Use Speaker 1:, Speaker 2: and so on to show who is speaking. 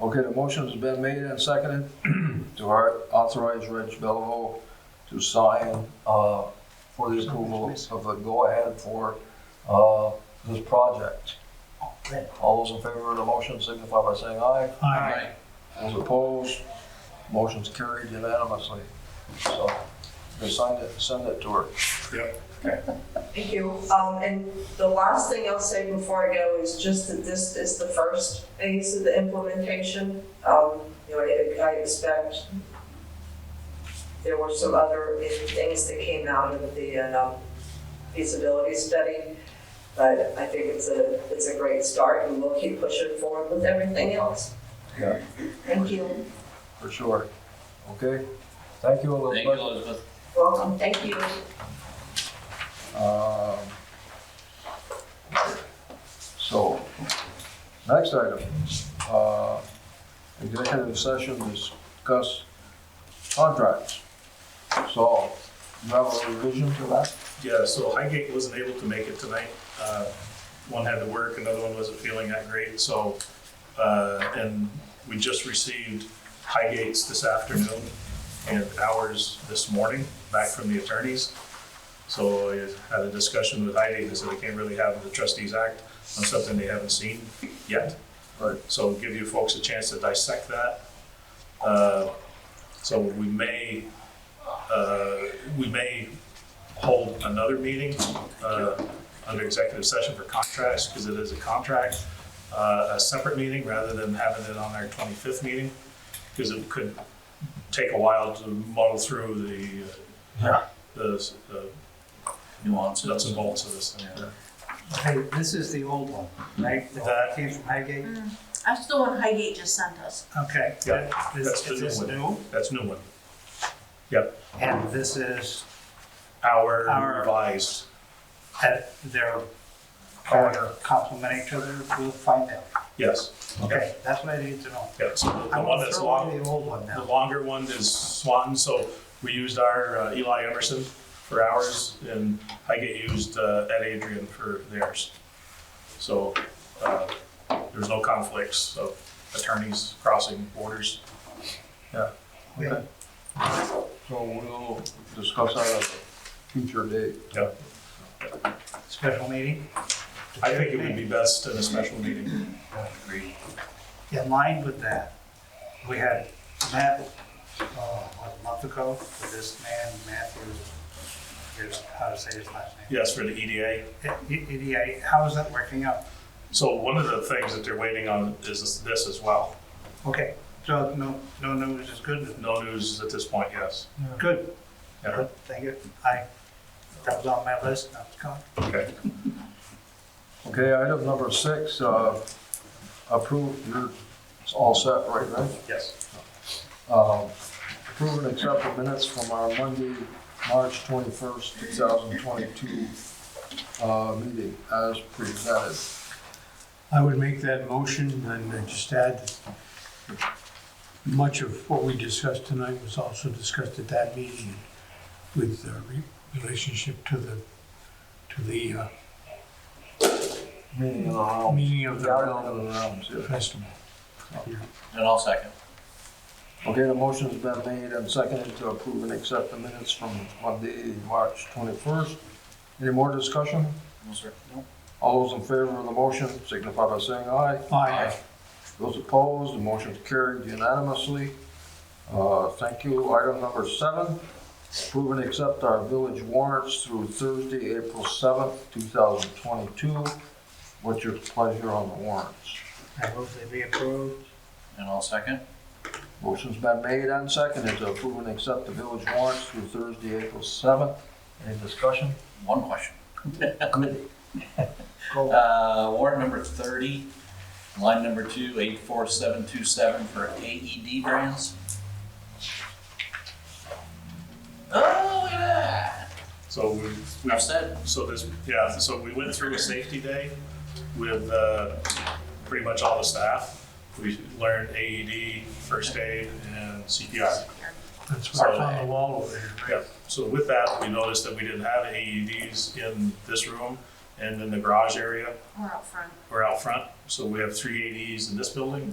Speaker 1: Okay, the motion's been made and seconded to au- authorize Reg Bellevue to sign uh, for the approval of the go-ahead for uh, this project. All those in favor of the motion signify by saying aye.
Speaker 2: Aye.
Speaker 1: Those opposed, motion's carried unanimously. So, they signed it, send it to her.
Speaker 3: Thank you. Um, and the last thing I'll say before I go is just that this is the first phase of the implementation. Um, you know, I, I expect there were some other things that came out of the, um, feasibility study. But I think it's a, it's a great start and we'll keep pushing forward with everything else.
Speaker 1: Yeah.
Speaker 3: Thank you.
Speaker 1: For sure. Okay? Thank you,
Speaker 2: Thank you,
Speaker 1: Elizabeth.
Speaker 2: Elizabeth.
Speaker 3: Welcome. Thank you.
Speaker 1: Um, So, next item, uh, executive session to discuss contracts. So, you have a revision to that?
Speaker 4: Yeah, so Highgate wasn't able to make it tonight. Uh, One had to work, another one wasn't feeling that great, so, uh, and we just received Highgate's this afternoon and ours this morning, back from the attorneys. So I had a discussion with Highgate, they said they can't really have the trustees act on something they haven't seen yet.
Speaker 1: Right.
Speaker 4: So give you folks a chance to dissect that. Uh, So we may, uh, we may hold another meeting uh, under executive session for contracts, because it is a contract, uh, a separate meeting rather than having it on our 25th meeting, because it could take a while to muddle through the, uh, the the
Speaker 2: Nuances.
Speaker 4: nuts and bolts of this thing.
Speaker 5: Hey, this is the old one, right?
Speaker 4: Mm.
Speaker 5: The one that came from Highgate?
Speaker 6: Mm. That's the one Highgate just sent us.
Speaker 5: Okay.
Speaker 4: Yeah, that's
Speaker 5: This
Speaker 4: the
Speaker 5: is this
Speaker 4: new
Speaker 5: new,
Speaker 4: That's new one. Yep,
Speaker 5: and this is
Speaker 4: our
Speaker 5: Our-
Speaker 4: revised,
Speaker 5: at their,
Speaker 4: Order.
Speaker 5: or complement each other, we'll find out.
Speaker 4: yes.
Speaker 5: Okay, that's what I need to know.
Speaker 4: Yeah, so the
Speaker 5: I'm
Speaker 4: one
Speaker 5: gonna
Speaker 4: that's
Speaker 5: throw
Speaker 4: long,
Speaker 5: away the old one
Speaker 4: The
Speaker 5: now.
Speaker 4: longer one is Swanton, so we used our uh, Eli Emerson for ours, and I get used uh, Ed Adrian for theirs. So uh, there's no conflicts of attorneys crossing borders.
Speaker 5: Okay.
Speaker 1: So we'll discuss that at a future date.
Speaker 4: Yeah,
Speaker 5: Special meeting,
Speaker 4: I think it would be best in a special meeting.
Speaker 5: in line with that, we had Matt, uh, what, a month ago, with this man, Matthew, here's how to say his last name.
Speaker 4: Yes, for the EDA.
Speaker 5: E- EDA, how is that working out?
Speaker 4: So one of the things that they're waiting on is this as well.
Speaker 5: Okay, so no, no news is good,
Speaker 4: No news at this point, yes.
Speaker 5: Good.
Speaker 4: Yeah.
Speaker 5: Good, Thank you. I, that was on my list, that was gone.
Speaker 4: Okay.
Speaker 1: Okay, item number six, uh, approve, you're it's all set right, right?
Speaker 4: Yes.
Speaker 1: Um, Approve and accept the minutes from our Monday, March 21st, 2022 uh, meeting as presented.
Speaker 7: I would make that motion and I'd just add, that much of what we discussed tonight was also discussed at that meeting with the re- relationship to the, to the uh,
Speaker 1: Meeting in the round.
Speaker 7: meaning of the
Speaker 1: Gathering of
Speaker 7: Round
Speaker 1: the rounds, yeah.
Speaker 7: festival.
Speaker 2: And I'll second.
Speaker 1: Okay, the motion's been made and seconded to approve and accept the minutes from Monday, March 21st. Any more discussion?
Speaker 2: No, sir.
Speaker 1: All those in favor of the motion signify by saying aye.
Speaker 7: Aye.
Speaker 1: Those opposed, the motion's carried unanimously. Uh, Thank you. Item number seven, approve and accept our village warrants through Thursday, April 7th, 2022. What's your pleasure on the warrants?
Speaker 5: I hope they be approved.
Speaker 2: And I'll second.
Speaker 1: Motion's been made and seconded to approve and accept the village warrants through Thursday, April 7th. Any discussion?
Speaker 2: One question.
Speaker 1: Good. Go.
Speaker 2: Uh, warrant number thirty, line number two, eight four seven two seven for E AED brands. Oh, look at that.
Speaker 4: So we- we
Speaker 2: Enough said.
Speaker 4: So this, yeah, so we went through a safety day with uh, pretty much all the staff. We learned AED, first aid, and CPR.
Speaker 7: That's what's on the wall over there, right?
Speaker 4: Yeah, so with that, we noticed that we didn't have AEDs in this room and in the garage area
Speaker 6: We're out front.
Speaker 4: or out front. So we have three AEDs E in this building